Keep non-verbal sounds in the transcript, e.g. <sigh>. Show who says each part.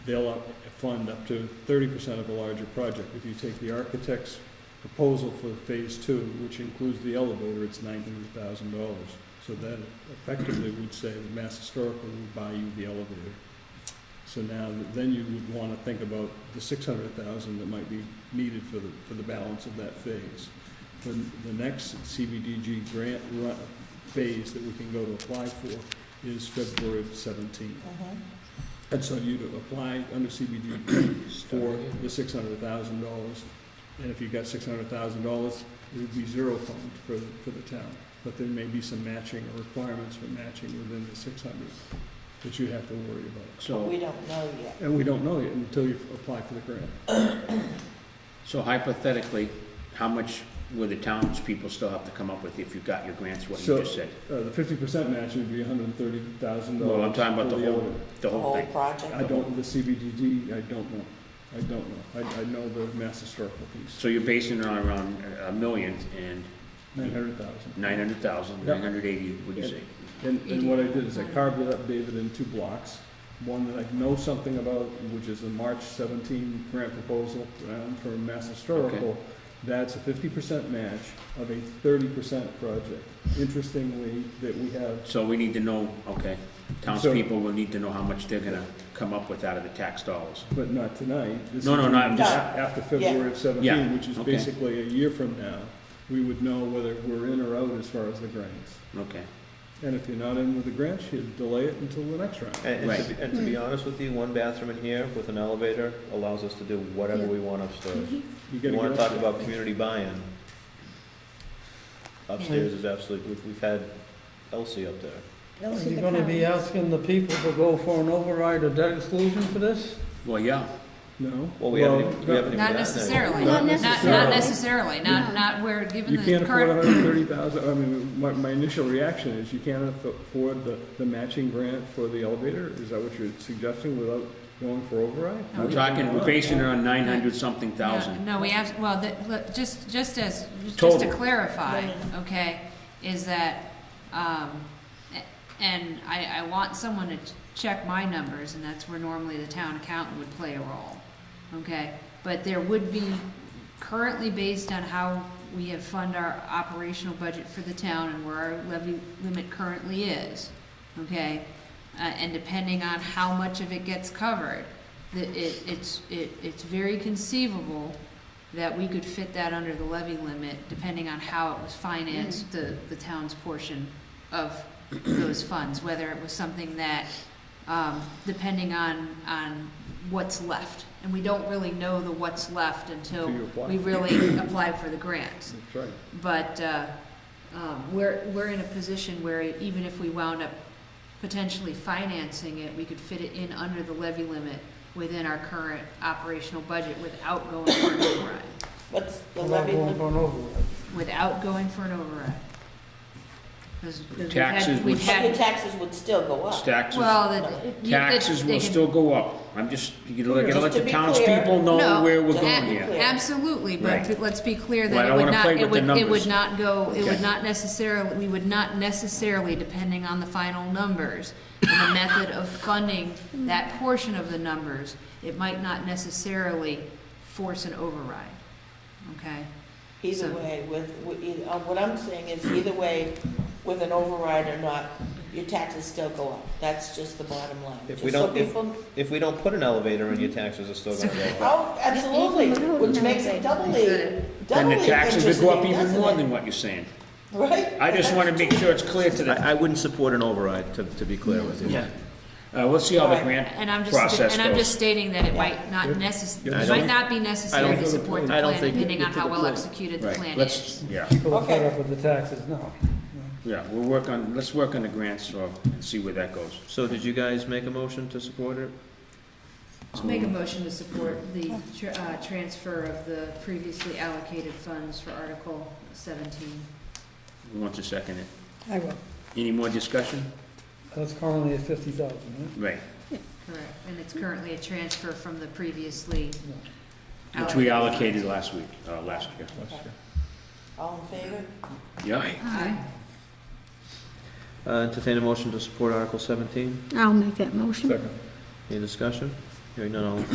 Speaker 1: they'll up- fund up to thirty percent of a larger project. If you take the architect's proposal for phase two, which includes the elevator, it's nine hundred thousand dollars. So that effectively would say that Mass Historical would buy you the elevator. So now, then you would wanna think about the six hundred thousand that might be needed for the, for the balance of that phase. The, the next CBDG grant ru- phase that we can go to apply for is February seventeenth.
Speaker 2: Mm-hmm.
Speaker 1: And so you'd apply under CBD for the six hundred thousand dollars. And if you got six hundred thousand dollars, it would be zero fund for, for the town. But there may be some matching or requirements for matching within the six hundred that you have to worry about. So,
Speaker 2: We don't know yet.
Speaker 1: and we don't know yet until you apply for the grant.
Speaker 3: So hypothetically, how much would the townspeople still have to come up with if you got your grants, what you
Speaker 1: So-
Speaker 3: just said?
Speaker 1: Uh, the fifty percent match would be hundred and thirty thousand dollars.
Speaker 3: Well, I'm talking about the whole, the
Speaker 2: The
Speaker 3: whole
Speaker 2: whole
Speaker 3: thing.
Speaker 1: I
Speaker 2: project,
Speaker 1: don't, the CBDG, I don't know. I don't know. I, I know the mass historical piece,
Speaker 3: So you're basing it on around a million and
Speaker 1: nine hundred thousand.
Speaker 3: nine hundred thousand,
Speaker 1: Yeah.
Speaker 3: nine hundred eighty, would you say?
Speaker 1: And, and what I did is I carved it up, David, in two blocks. One that I know something about, which is the March seventeen grant proposal um, for Mass Historical. That's a fifty percent match of a thirty percent project. Interestingly, that we have,
Speaker 3: So we need to know, okay, townspeople will need to know how much they're gonna come up with out of the tax dollars.
Speaker 1: but not tonight. This
Speaker 3: No, no,
Speaker 1: is
Speaker 3: no, I'm
Speaker 1: a-
Speaker 2: just-
Speaker 1: After February of
Speaker 3: Yeah,
Speaker 1: seventeen, which is
Speaker 3: okay.
Speaker 1: basically a year from now, we would know whether we're in or out as far as the grants.
Speaker 3: Okay,
Speaker 1: And if you're not in with the grants, you delay it until the next round.
Speaker 4: And, and, to
Speaker 3: Right.
Speaker 4: be, and to be honest with you, one bathroom in here with an elevator allows us to do whatever we want upstairs.
Speaker 5: Mm-hmm.
Speaker 1: You
Speaker 4: You
Speaker 1: gotta
Speaker 4: wanna
Speaker 1: get up
Speaker 4: talk
Speaker 1: there.
Speaker 4: about community buy-in? Upstairs is absolutely, we've, we've had Elsie up there.
Speaker 6: Are you gonna be asking the people to go for an override or debt exclusion for this?
Speaker 3: well, yeah,
Speaker 1: No.
Speaker 4: Well, we haven't, even- we haven't even gotten there.
Speaker 5: Not
Speaker 1: Not
Speaker 5: necessarily, not, not
Speaker 1: necessarily.
Speaker 5: necessarily, not, not where, given
Speaker 1: You can't
Speaker 5: the
Speaker 1: afford
Speaker 5: current,
Speaker 1: hundred and thirty thousand, I mean, my, my initial reaction is you can't aff- afford the, the matching grant for the elevator? Is that what you're suggesting without going for override?
Speaker 3: we're talking, we're basing it on nine hundred something
Speaker 5: no,
Speaker 3: thousand.
Speaker 5: no, we have, well, that, look, just, just as, just to
Speaker 1: Total.
Speaker 5: clarify,
Speaker 2: No, no,
Speaker 5: okay, is that, um, a- and I, I want someone to ch- check my numbers, and that's where normally the town accountant would play a role, okay? But there would be, currently based on how we have fund our operational budget for the town and where our levy limit currently is, okay? Uh, and depending on how much of it gets covered, the, it, it's, it, it's very conceivable that we could fit that under the levy limit, depending on how it was financed, the,
Speaker 1: Mm-hmm.
Speaker 5: the town's portion of those funds, whether it was something that, um, depending on, on what's left. And we don't really know the what's left until
Speaker 1: Until you apply. <clears throat>
Speaker 5: we really apply for the grants.
Speaker 1: That's right.
Speaker 5: But uh, um, we're, we're in a position where even if we wound up potentially financing it, we could fit it in under the levy limit within our current operational budget without going for an override.
Speaker 2: what's the
Speaker 6: We're not
Speaker 2: levy,
Speaker 6: going
Speaker 2: lim-
Speaker 6: for an override.
Speaker 5: Without going for an override. 'Cause we've had-
Speaker 3: Taxes would-
Speaker 5: We've
Speaker 2: your
Speaker 5: had,
Speaker 2: taxes would still go up.
Speaker 3: Taxes.
Speaker 5: well, the- you- that
Speaker 3: Taxes
Speaker 5: they
Speaker 3: will
Speaker 5: can-
Speaker 3: still go up. I'm just, you gotta
Speaker 2: Just
Speaker 3: gotta let
Speaker 2: to
Speaker 3: the
Speaker 2: be
Speaker 3: townspeople
Speaker 2: clear.
Speaker 3: know
Speaker 5: No,
Speaker 3: where we're
Speaker 2: to
Speaker 3: going
Speaker 2: be
Speaker 3: here.
Speaker 2: clear.
Speaker 5: Absolutely,
Speaker 3: Right.
Speaker 5: but let's be clear
Speaker 3: Well, I
Speaker 5: that it
Speaker 3: don't
Speaker 5: would
Speaker 3: wanna
Speaker 5: not,
Speaker 3: play
Speaker 5: it
Speaker 3: with
Speaker 5: would,
Speaker 3: the
Speaker 5: it
Speaker 3: numbers.
Speaker 5: would not go, it would
Speaker 3: Okay.
Speaker 5: not necessarily, we would not necessarily, depending on the final numbers and the method of funding that portion of the numbers, it might not necessarily force an override, okay?
Speaker 2: Either
Speaker 5: So-
Speaker 2: way, with, with either- uh, what I'm saying is either way, with an override or not, your taxes still go up. That's just the bottom line.
Speaker 4: If
Speaker 2: Just
Speaker 4: we
Speaker 2: so
Speaker 4: don't- if-
Speaker 2: people-
Speaker 4: If we don't put an elevator in, your taxes are still gonna go up.
Speaker 2: Oh, absolutely, which makes it doubly,
Speaker 3: Then
Speaker 2: doubly
Speaker 3: the taxes would go up
Speaker 2: interesting,
Speaker 3: even more
Speaker 2: doesn't
Speaker 3: than
Speaker 2: it?
Speaker 3: what you're saying.
Speaker 2: Right?
Speaker 3: I just wanna make sure it's clear to the,
Speaker 4: <laughs> I, I wouldn't support an override, to, to be clear with you.
Speaker 3: yeah. Uh, we'll see how the
Speaker 2: Alright,
Speaker 3: grant
Speaker 5: And I'm just,
Speaker 3: process
Speaker 5: and I'm just
Speaker 3: goes.
Speaker 5: stating that it
Speaker 2: Yeah.
Speaker 5: might not
Speaker 1: Yeah.
Speaker 5: necess,
Speaker 4: I
Speaker 5: it
Speaker 4: don't-
Speaker 5: might not be necessary to support the
Speaker 4: I don't
Speaker 5: plan,
Speaker 4: think-
Speaker 5: depending on how well
Speaker 1: Right.
Speaker 5: executed the
Speaker 3: Right,
Speaker 5: plan
Speaker 3: let's,
Speaker 5: is.
Speaker 3: yeah,
Speaker 6: People are fed
Speaker 2: Okay.
Speaker 6: up with the taxes now.
Speaker 3: yeah, we'll work on, let's work on the grants so- and see where that goes.
Speaker 4: So did you guys make a motion to support it?
Speaker 5: I'll Make a motion to support the tr- uh, transfer of the previously allocated funds for Article 17.
Speaker 3: Who wants to second it?
Speaker 6: I will.
Speaker 3: Any more discussion?
Speaker 6: That's currently at fifty thousand,
Speaker 3: Right,
Speaker 5: Correct. And it's currently a transfer from the previously
Speaker 6: right?
Speaker 3: which we
Speaker 5: allocated.
Speaker 3: allocated last week, uh, last year.
Speaker 2: All in favor?
Speaker 3: Yeah,
Speaker 5: Aye.
Speaker 4: Uh, entertain a motion to support Article seventeen?
Speaker 7: I'll make that motion.
Speaker 1: Second.
Speaker 4: Any discussion? Hearing none, all in